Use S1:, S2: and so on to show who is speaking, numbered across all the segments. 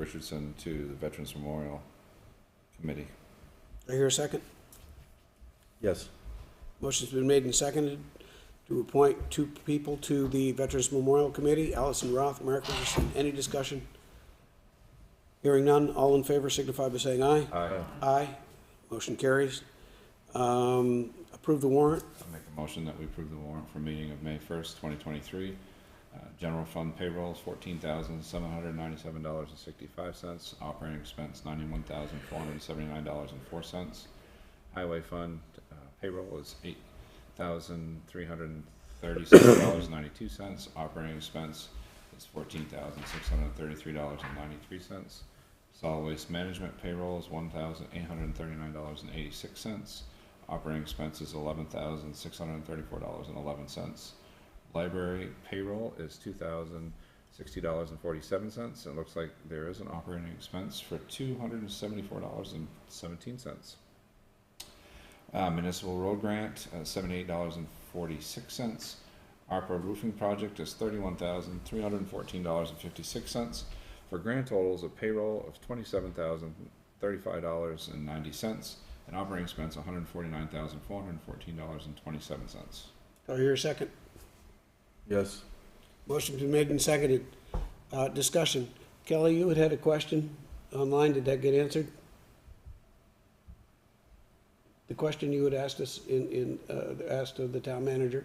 S1: Richardson to the Veterans Memorial Committee.
S2: I hear a second?
S3: Yes.
S2: Motion's been made and seconded to appoint two people to the Veterans Memorial Committee, Allison Roth, Mark Richardson. Any discussion? Hearing none, all in favor signify by saying aye.
S1: Aye.
S2: Aye. Motion carries. Um, Approve the warrant.
S1: I'll make a motion that we approve the warrant for meeting of May first, twenty twenty-three. Uh, General fund payroll fourteen thousand seven hundred ninety-seven dollars and sixty-five cents, operating expense ninety-one thousand four hundred seventy-nine dollars and four cents. Highway fund uh, payroll is eight thousand three hundred thirty-seven dollars ninety-two cents, operating expense is fourteen thousand six hundred thirty-three dollars and ninety-three cents. Solid waste management payroll is one thousand eight hundred thirty-nine dollars and eighty-six cents. Operating expenses, eleven thousand, six hundred and thirty-four dollars and eleven cents. Library payroll is two thousand, sixty dollars and forty-seven cents. It looks like there is an operating expense for two hundred and seventy-four dollars and seventeen cents. Uh, municipal road grant, uh, seventy-eight dollars and forty-six cents. ARPA roofing project is thirty-one thousand, three hundred and fourteen dollars and fifty-six cents. For grand totals of payroll of twenty-seven thousand, thirty-five dollars and ninety cents and operating expense one hundred forty-nine thousand four hundred fourteen dollars and twenty-seven cents.
S2: Do I hear a second?
S3: Yes.
S2: Motion's been made and seconded. Uh, Discussion. Kelly, you had had a question online. Did that get answered? The question you had asked us in, in, uh, asked of the town manager.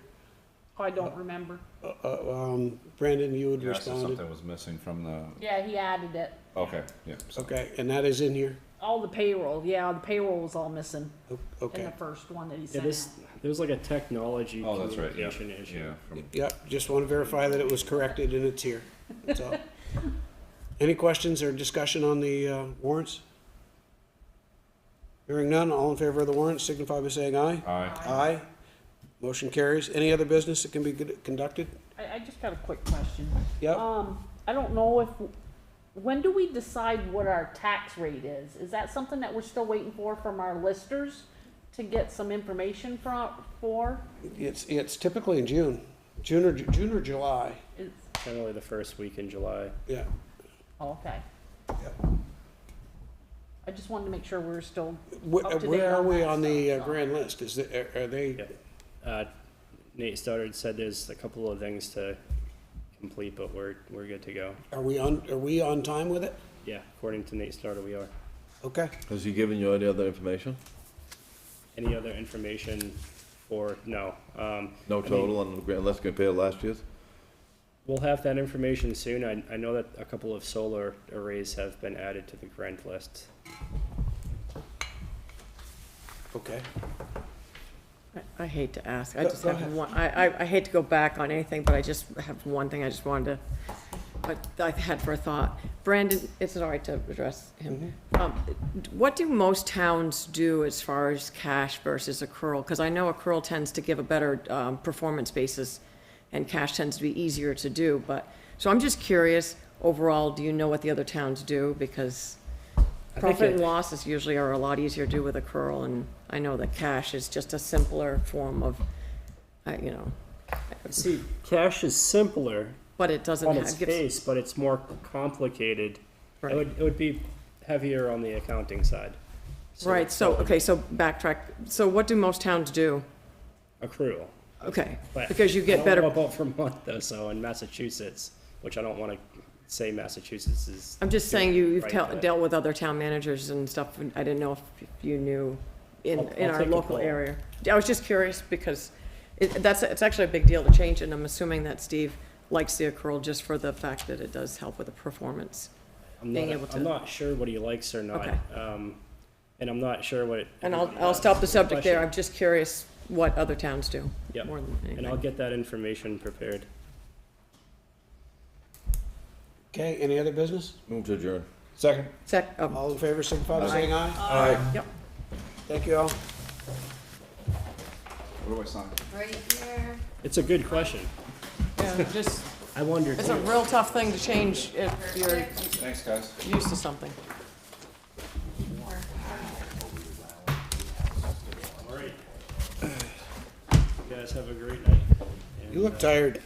S4: I don't remember.
S2: Uh, uh, um, Brandon, you had
S1: You asked if
S2: responded.
S1: something was missing from the,
S4: Yeah, he added it.
S1: okay, yeah, so,
S2: Okay, and that is in here?
S4: All the payroll, yeah, the payroll was all missing
S2: O-
S4: in the
S2: Okay.
S4: first one that he
S5: Yeah,
S4: sent
S5: this,
S4: out.
S5: there's like a technology
S1: oh, that's right, yeah,
S5: communication issue.
S1: yeah, from,
S2: Yep, just want to verify that it was corrected and it's here. That's all. Any questions or discussion on the uh, warrants? Hearing none, all in favor of the warrants signify by saying aye.
S1: aye,
S2: Aye. Motion carries. Any other business that can be good- conducted?
S4: I, I just got a quick question.
S2: Yep,
S4: Um, I don't know if, when do we decide what our tax rate is? Is that something that we're still waiting for from our listers to get some information from, for?
S2: it's, it's typically in June, June or, June or July.
S4: It's-
S5: Generally the first week in July.
S2: Yeah,
S4: oh, Okay.
S2: Yep.
S4: I just wanted to make sure we're still,
S2: Wh-
S4: Up to date
S2: Where are
S4: on
S2: we
S4: that
S2: on the uh,
S4: stuff, so.
S2: grand list? Is, the- are are they,
S5: Yeah. Uh, Nate Stoddard said there's a couple of things to complete, but we're, we're good to go.
S2: are we on, are we on time with it?
S5: Yeah, according to Nate Stoddard, we are.
S2: Okay,
S3: Has he given you any other information?
S5: Any other information or, no. Um,
S3: No
S5: mean-
S3: total on the grand, let's compare last year's?
S5: we'll have that information soon. I, I know that a couple of solar arrays have been added to the grant list.
S2: okay.
S6: I- I hate to ask, I
S2: Go-
S6: just
S2: go
S6: have
S2: ahead.
S6: one, I, I, I hate to go back on anything, but I just have one thing I just wanted to, but I've had for a thought. Brandon, is it all right to address
S2: Mm-hmm.
S6: him? Um, What do most towns do as far as cash versus accrual? Because I know accrual tends to give a better, um, performance basis, and cash tends to be easier to do, but, so I'm just curious, overall, do you know what the other towns do? Because
S5: I think
S6: Profit
S5: it-
S6: and losses usually are a lot easier to do with a curl, and I know that cash is just a simpler form of, uh, you know,
S5: See, cash is simpler
S6: but it doesn't
S5: on its
S6: have, gives,
S5: face, but it's more complicated. It
S6: Right.
S5: would, it would be heavier on the accounting side.
S6: right, so, okay, so backtrack, so what do most towns do?
S5: Accrual.
S6: Okay,
S5: But
S6: because you
S5: I
S6: get
S5: don't
S6: better,
S5: know about Vermont though, so in Massachusetts, which I don't wanna say Massachusetts is.
S6: I'm just
S5: doing
S6: saying, you- you've
S5: right,
S6: tel-
S5: but
S6: dealt with other town managers and stuff, and I didn't know if you knew in,
S5: I'll-
S6: in
S5: I'll
S6: our
S5: take a
S6: local
S5: poll.
S6: area. I was just curious, because it, that's, it's actually a big deal to change, and I'm assuming that Steve likes the accrual just for the fact that it does help with the performance.
S5: I'm
S6: being
S5: not-
S6: able to-
S5: I'm not sure what he likes or not,
S6: Okay.
S5: um, and I'm not sure what.
S6: And I'll, I'll stop the subject there,
S5: Question.
S6: I'm just curious what other towns do.
S5: Yep.
S6: More than
S5: And I'll
S6: anything.
S5: get that information prepared.
S2: Okay, any other business?
S3: Move to adjourn.
S1: second.
S6: Sec, oh,
S2: All in favor, signify by saying aye.
S6: yep.
S2: Thank you all.
S1: What do I sign?
S5: It's a good question.
S6: Yeah, just,
S5: I wondered.
S6: it's a
S5: too.
S6: real tough thing to change if you're
S1: Thanks, guys.
S6: used to something.
S5: All right. You guys have a great night.
S2: You look tired.